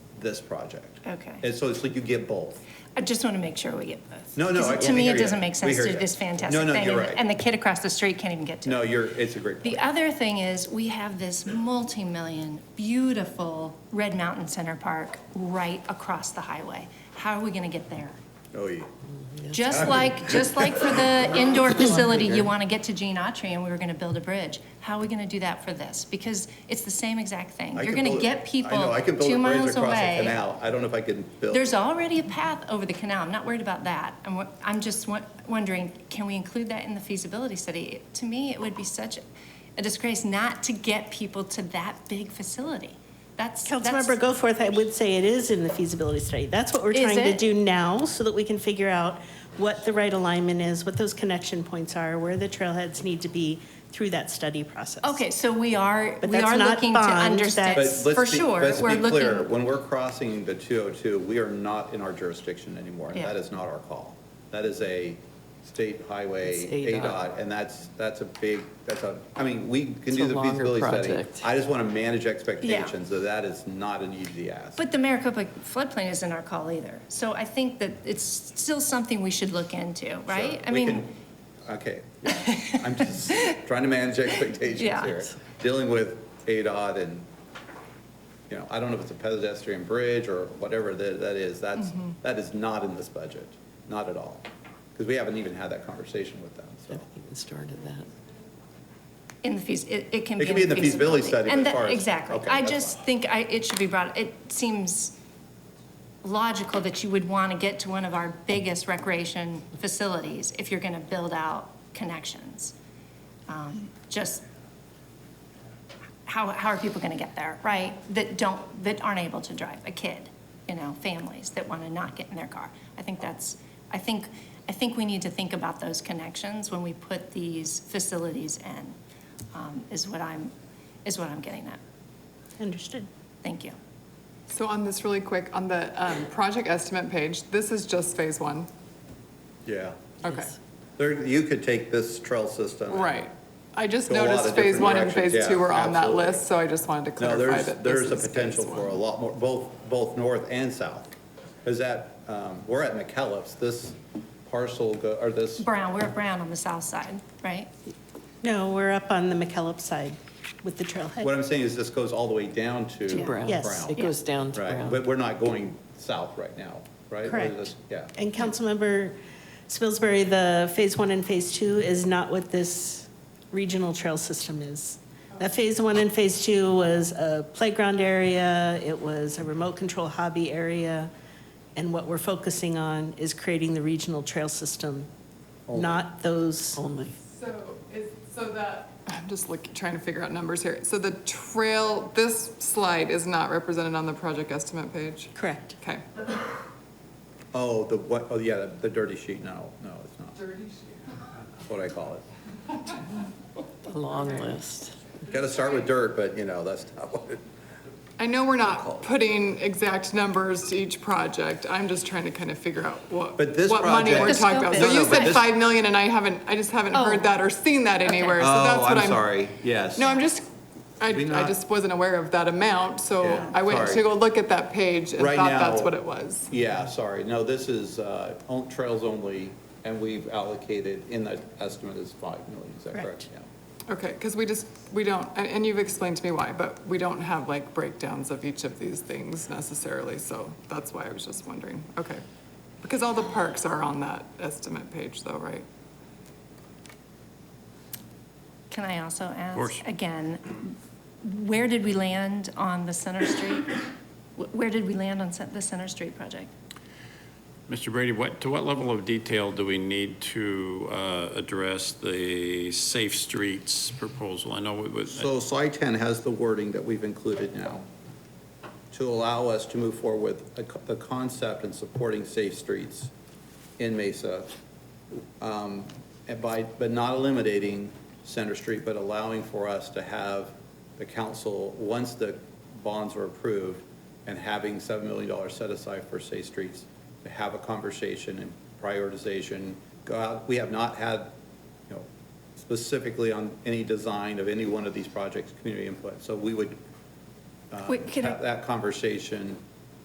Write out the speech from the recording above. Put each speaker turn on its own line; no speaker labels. this project.
Okay.
And so it's like you get both.
I just want to make sure we get both.
No, no, I-
'Cause
we
To me,
hear
it
you.
doesn't make
We
sense
hear
to do
you.
this
No,
fantastic
no,
thing,
you're
and
right.
the- and the kid across the street can't even get to it.
No, you're, it's a great
The
point.
other thing is, we have this multi-million, beautiful Red Mountain Center Park right across the highway. How are we gonna get there?
Oh, yeah.
Just like, just like for the indoor facility, you wanna get to Gene Autry and we were gonna build a bridge. How are we gonna do that for this? Because it's the same exact thing.
I
You're
can
gonna
build-
get
I know,
people
I can build
two
a bridge
miles
across a
away.
Canal, I don't know if I can build.
There's already a path over the canal. I'm not worried about that. I'm, wo- I'm just wo- wondering, can we include that in the feasibility study? It- To me, it would be such a disgrace not to get people to that big facility. That's, that's,
Councilmember Goforth, I would say it is in the feasibility study. That's what we're
Is
trying to
it?
do now, so that we can figure out what the right alignment is, what those connection points are, where the trailheads need to be through that study process.
okay, so we are,
But
we
that's
are
not
looking to
bond,
understand,
But
that's-
let's
for
be-
sure,
let's be
we're
clear,
looking.
When we're crossing the 202, we are not in our jurisdiction anymore, and
Yeah.
that is not our call. That is a state highway,
It's
ADOT, and that's, that's a big, that's a, I mean, we can
It's
do
a
the
longer
feasibility study.
project.
I just want to manage expectations, so that is not an easy ask.
But the Maricopa floodplain isn't our call either. So I think that it's still something we should look into,
So
right? I
we
mean,
can- Okay, I'm just trying to manage expectations
Yeah.
here. Dealing with ADOT and, you know, I don't know if it's a pedestrian bridge or whatever that, that is, that's,
Mm-hmm.
that is not in this budget, not at all. Because we haven't even had that conversation with them, so.
Haven't even started that.
in the fees, it, it can
It
be.
can be in the feasibility study, but
And
as
that-
far as-
Exactly.
okay,
I
that's
just
fine.
think I, it should be brought, it seems logical that you would want to get to one of our biggest recreation facilities if you're going to build out connections. Um, Just, how, how are people going to get there, right? That don't, that aren't able to drive, a kid, you know, families that want to not get in their car. I think that's, I think, I think we need to think about those connections when we put these facilities in, um, is what I'm, is what I'm getting at.
Understood.
Thank you.
So on this really quick, on the um, project estimate page, this is just phase one.
Yeah,
Okay,
there, you could take this trail system. and-
right. I just
Go a lot of
noticed phase
different
one and
directions,
phase two
yeah,
were on that
absolutely.
list, so I just wanted to
No,
clarify
there's,
that this
there's a
is phase
potential for a
one.
lot more, both, both north and south. Because that, um, we're at McKellips, this parcel, go- or this
Brown, we're at Brown on the south side, right?
No, we're up on the McKellop side with the
What
trailhead.
I'm saying is this goes all the way down to.
To
Brown.
Yes.
It goes down to
Right,
Brown.
but we're not going south right now, right? Or
Correct.
this- Yeah.
And Councilmember Spilsbury, the phase one and phase two is not what this regional trail system is. That phase one and phase two was a playground area, it was a remote control hobby area. And what we're focusing on is creating the regional trail system, not those,
Only.
So is, so that. I'm just looking, trying to figure out numbers here. So the trail, this slide is not represented on the project estimate page?
correct.
Okay.
Oh, the what, oh, yeah, the- the dirty sheet, no, no, it's not. Dirty sheet. What I call it.
A long list.
Got to start with dirt, but you know, that's not what it,
I know we're not putting exact numbers to each project. I'm just trying to kind of figure out what,
But this
what money
project-
we're talking about.
No,
So
no,
you
but
said
this-
five million and I haven't, I just haven't
Oh.
heard that or seen that
Okay.
anywhere. So that's
Oh,
what
I'm sorry, yes.
No, I'm just, I,
We
I
not-
just wasn't aware of that amount, so
Yeah,
I went
sorry.
to go look at that page and
Right
thought that's
now-
what it was.
Yeah, sorry, no, this is, uh, on- trails only, and we've allocated, in the estimate is five million, is that correct?
Correct.
Yeah.
Okay, because we just, we don't, and, and you've explained to me why, but we don't have like breakdowns of each of these things necessarily, so that's why I was just wondering, okay. Because all the parks are on that estimate page though, right?
Can I also ask, again, where did we land on the Center Street? Wh- Where did we land on cen- the Center Street project?
Mr. Brady, what, to what level of detail do we need to uh, address the Safe Streets proposal? I know it was,
So slide 10 has the wording that we've included now to allow us to move forward with a co- the concept and supporting safe streets in Mesa. um, And by, but not eliminating Center Street, but allowing for us to have the council, once the bonds are approved and having $7 million set aside for safe streets, to have a conversation and prioritization, go out, we have not had, you know, specifically on any design of any one of these projects, community input. So we would uh,
Wait, can I-
have that conversation